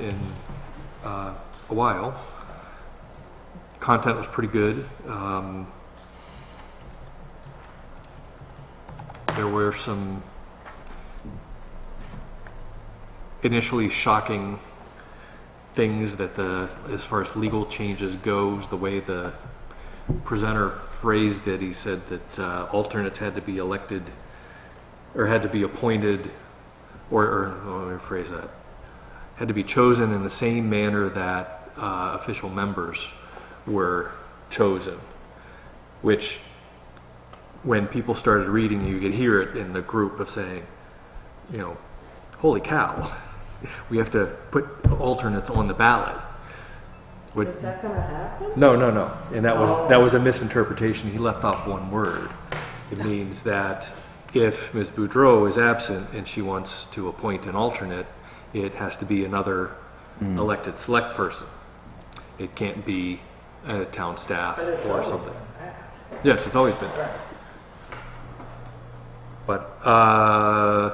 in uh, a while. Content was pretty good. Um, There were some initially shocking things that the, as far as legal changes goes, the way the presenter phrased it, he said that uh, alternates had to be elected, or had to be appointed, or, or, let me rephrase that had to be chosen in the same manner that uh, official members were chosen, which when people started reading, you could hear it in the group of saying, you know, holy cow, we have to put alternates on the ballot. Would- Is that gonna happen? no, no, no. And that was, that was a misinterpretation. He left off one word. It means that if Ms. Boudreau is absent and she wants to appoint an alternate, it has to be another elected select person. It can't be a town staff But it's or always something. been that. Yes, it's always been that. But, uh,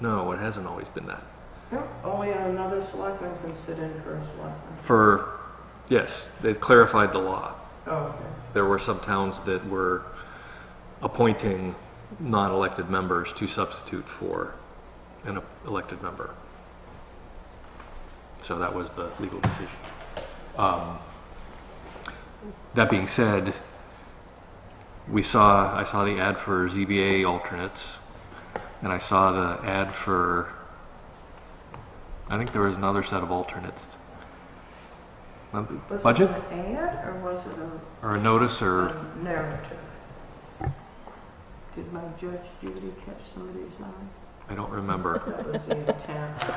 no, it hasn't always been that. No, Only another selectman can sit in for a selectman. For, yes, they clarified the law. Oh, okay. there were some towns that were appointing non-elected members to substitute for an elected member. So that was the legal decision. Um, That being said, we saw, I saw the ad for ZBA alternates, and I saw the ad for, I think there was another set of alternates. Um, Was it Budget Er. an ad or was it a- or a notice or? a narrative? Did my Judge Judy catch somebody's eye? I don't remember. That was the intent.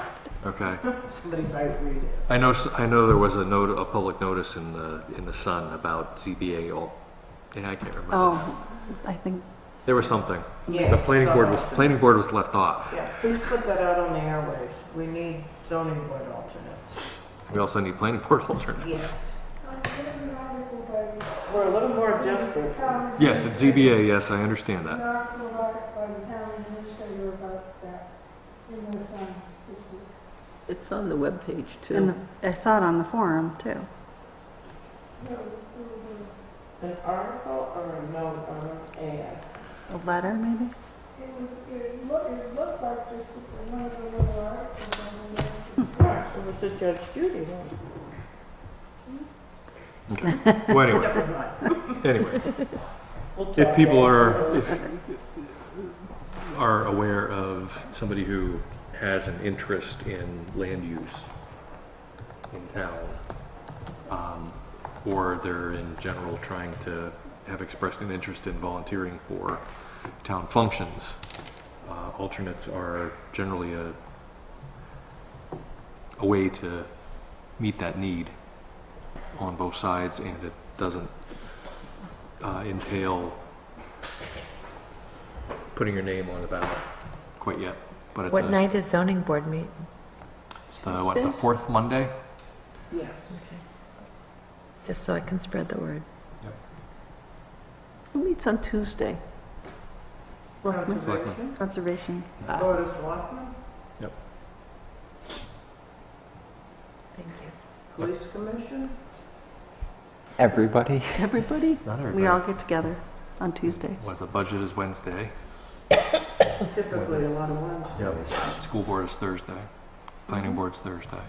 Okay. Somebody might read it. I know, s- I know there was a note, a public notice in the, in the Sun about ZBA all, yeah, I can't remember. Oh, I think, There was something. Yes. The planning board was, planning board was left off. Yeah, please put that out on the airwaves. We need zoning board alternates. We also need planning board alternates. We're a little more desperate. Yes, it's ZBA, yes, I understand that. Not the law by the town administrator about that in the sun this week. It's on the webpage in the, too. I saw it on the forum too. No, it will be- An article or a note or an ad? A letter, maybe? It was, it looked, it looked like this was one of the little articles on the web. Right, it was the Judge Judy one. Okay. Well, anyway, Never mind. anyway, We'll if talk people later. are, if, are aware of somebody who has an interest in land use in town, um, or they're in general trying to have expressed an interest in volunteering for town functions. Uh, alternates are generally a, a way to meet that need on both sides, and it doesn't uh, entail putting your name on the ballot quite yet, but it's What a, night is zoning board meet? it's the, what, the Tuesdays? fourth Monday? Yes. Just so I can spread the word. Who meets on Tuesday? Selectmen, Conservation, conservation. Ah, Board of Selectmen, Thank you. Police Commission, Everybody? Everybody? Not We all everybody. get together on Tuesdays. Was the budget is Wednesday. typically a lot of ones. School board is Thursday. Planning board's Thursday.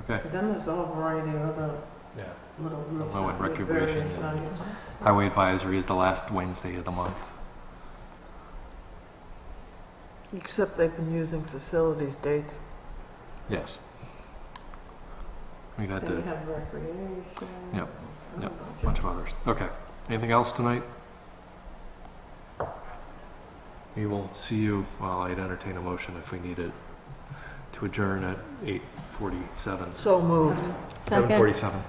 Okay. Then there's a whole variety of other Yeah. little groups. Low and with recreation various and- values. Highway advisory is the last Wednesday of the month. Except they've been using facilities dates. Yes. We've had Then you to, have recreation. Oh, Yep, and a yep. bunch bunch of others. Okay. Anything else tonight? We will see you, well, I'd entertain a motion if we need it, to adjourn at eight forty-seven. So moved. Seven forty-seven.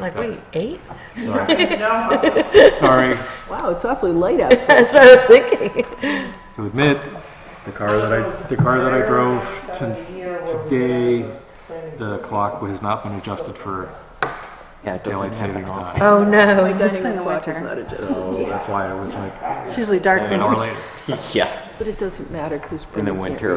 Like, wait, eight? Sorry. No, Sorry. Wow, it's awfully late out there. That's what I was thinking. to admit, the car that I, the car that I drove to, today, the clock has not been adjusted for Yeah, it daylight doesn't happen savings often. time. Oh, no. Especially in the winter. So that's why I was like, It's usually dark an hour when we later. Yeah, But it doesn't matter because. in the winter